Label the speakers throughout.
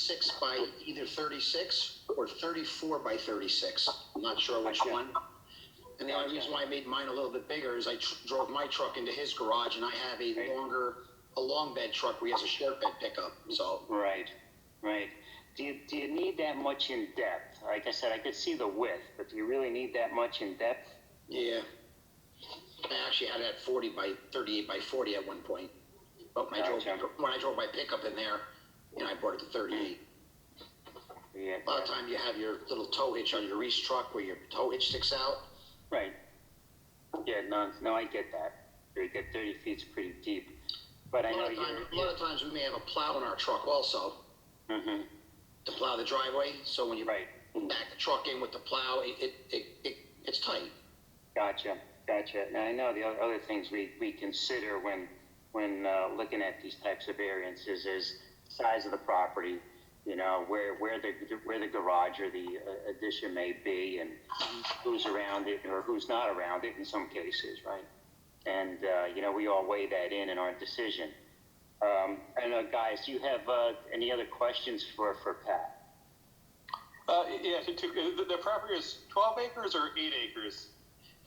Speaker 1: six by either thirty-six or thirty-four by thirty-six. I'm not sure which
Speaker 2: Okay.
Speaker 1: one. And the only reason why I made mine a little bit bigger is I tr- drove my truck into his garage and I have a longer, a long bed truck where he has a short bed pickup, so.
Speaker 2: Right, right. Do you, do you need that much in depth? Like I said, I could see the width, but do you really need that much in depth?
Speaker 1: Yeah. I actually had it at 40 by 38 by 40 at one point. But when, I, drove,
Speaker 2: Gotcha.
Speaker 1: when I drove my pickup in there, you know, I brought it to 38.
Speaker 2: Yeah,
Speaker 1: A lot of time you have your little tow hitch on your Reese truck where your tow hitch sticks out.
Speaker 2: right. Yeah, no, no, I get that. You get thirty feet's pretty deep, but I
Speaker 1: A
Speaker 2: know
Speaker 1: lot, of
Speaker 2: you're.
Speaker 1: time, a lot of times we may have a plow in our truck also
Speaker 3: Mm-hmm.
Speaker 2: Mhm,
Speaker 1: to plow the driveway. So when you
Speaker 2: Right.
Speaker 1: back the truck in with the plow, it, it, it, it it's tight.
Speaker 2: Gotcha, gotcha. Now, I know the other- other things we, we consider when, when uh, looking at these types of variances is size of the property, you know, where, where the, where the garage or the uh, addition may be and who's around it or who's not around it in some cases, right? And, uh, you know, we all weigh that in in our decision. Um, I don't know, guys, do you have uh, any other questions for, for Pat?
Speaker 3: Uh, yeah, I think two, the, the property is twelve acres or eight acres?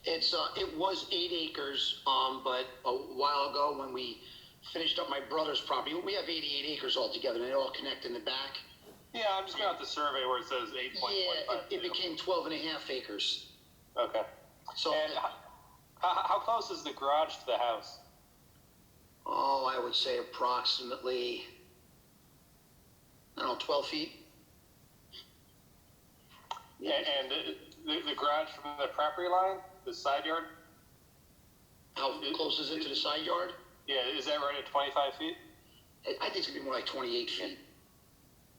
Speaker 1: It's uh, it was eight acres, um, but a while ago when we finished up my brother's property, we have eighty-eight acres altogether, and they all connect in the back.
Speaker 3: Yeah, I'm just going to the survey where it says eight point
Speaker 1: Yeah,
Speaker 3: one
Speaker 1: it, it
Speaker 3: five.
Speaker 1: became twelve and a half acres.
Speaker 3: Okay.
Speaker 1: So,
Speaker 3: And how, how how close is the garage to the house?
Speaker 1: oh, I would say approximately, I don't know, twelve feet.
Speaker 3: A- And the, the, the garage from the property line, the side yard?
Speaker 1: How
Speaker 3: Mm-hmm.
Speaker 1: close is it to the side yard?
Speaker 3: Yeah, is that right at twenty-five feet?
Speaker 1: I I think it's gonna be more like twenty-eight feet.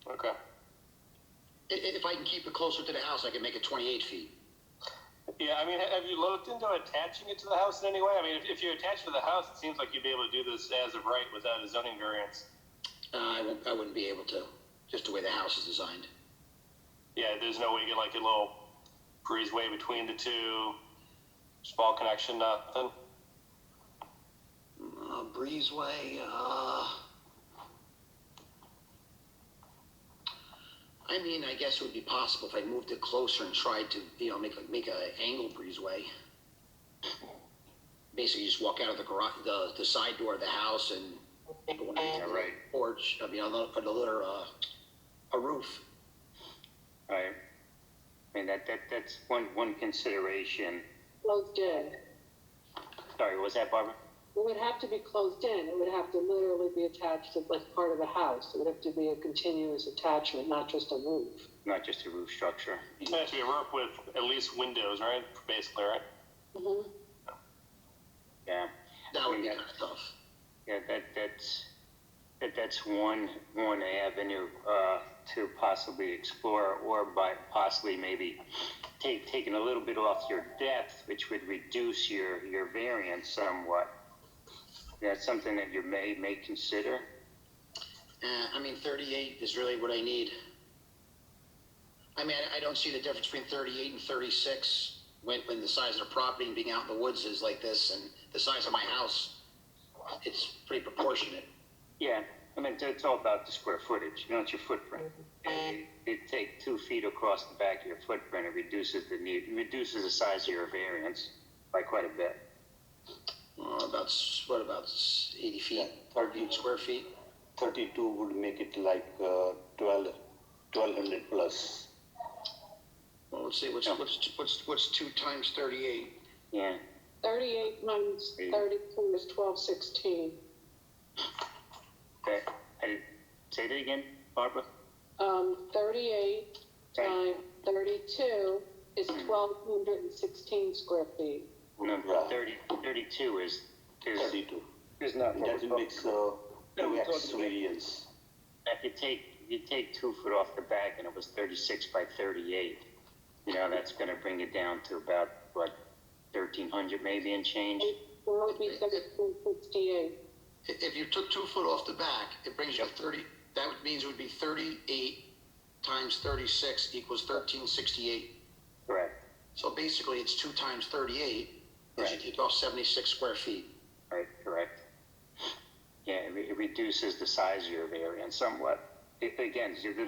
Speaker 3: Okay.
Speaker 1: I- i- If I can keep it closer to the house, I can make it twenty-eight feet.
Speaker 3: Yeah, I mean, ha- have you looked into attaching it to the house in any way? I mean, if, if you attach it to the house, it seems like you'd be able to do this as of right without a zoning variance.
Speaker 1: Uh, I won't, I wouldn't be able to, just the way the house is designed.
Speaker 3: Yeah, there's no way you get like a little breezeway between the two, small connection, nothing.
Speaker 1: Uh, breezeway. Uh, I mean, I guess it would be possible if I moved it closer and tried to, you know, make like make a angle breezeway. Basically, you just walk out of the garage, the, the side door of the house, and go into the
Speaker 2: right.
Speaker 1: porch. I mean, another another uh, a roof.
Speaker 2: Right. I mean, that, that, that's one, one consideration.
Speaker 4: closed in.
Speaker 2: Sorry, what was that Barbara?
Speaker 4: It would have to be closed in. It would have to literally be attached to like part of the house. It would have to be a continuous attachment, not just a roof.
Speaker 2: not just a roof structure.
Speaker 3: It has to be a roof with at least windows, right? Basically, right?
Speaker 2: Yeah,
Speaker 1: That would be
Speaker 2: Yeah.
Speaker 1: kind of tough.
Speaker 2: yeah, that that's that, that's one one avenue uh, to possibly explore, or by possibly maybe take taking a little bit off your depth, which would reduce your your variance somewhat. That's something that you may may consider.
Speaker 1: Uh, I mean, 38 is really what I need. I mean, I don't see the difference between 38 and 36 when, when the size of the property and being out in the woods is like this and the size of my house. It's pretty proportionate.
Speaker 2: Yeah, I mean, it's all about the square footage, you know, it's your footprint. It, it take two feet across the back of your footprint, it reduces the need, reduces the size of your variance by quite a bit.
Speaker 1: Uh, about, s- what, about s- 80 feet,
Speaker 5: 30
Speaker 1: square feet?
Speaker 5: 32 would make it like uh, 12, 1200 plus.
Speaker 1: Well, let's see, what's, what's, what's, what's two times 38?
Speaker 2: Yeah.
Speaker 4: Thirty-eight minus thirty-two is twelve sixteen.
Speaker 2: Okay, I did, say that again, Barbara?
Speaker 4: Um, thirty-eight
Speaker 2: Sorry.
Speaker 4: times thirty-two is twelve hundred and sixteen square feet.
Speaker 2: No,
Speaker 5: Yeah.
Speaker 2: 30, 32 is, is,
Speaker 5: 32.
Speaker 2: is not what
Speaker 5: That
Speaker 2: we're talking
Speaker 5: makes
Speaker 2: about.
Speaker 5: uh,
Speaker 2: No, we
Speaker 5: 2x
Speaker 2: thought-
Speaker 5: variance.
Speaker 2: If you take, you take two foot off the back and it was 36 by 38, you know, that's gonna bring it down to about, what, 1300 maybe and change?
Speaker 4: It would be thirteen sixty-eight.
Speaker 1: If, if you took two foot off the back, it brings you to 30, that would, means it would be 38 times 36 equals 1368.
Speaker 2: Correct,
Speaker 1: So basically, it's two times thirty-eight, because you
Speaker 2: Right.
Speaker 1: take off seventy-six square feet.
Speaker 2: right, correct. Yeah, it re- it reduces the size of your variance somewhat. It- Again, the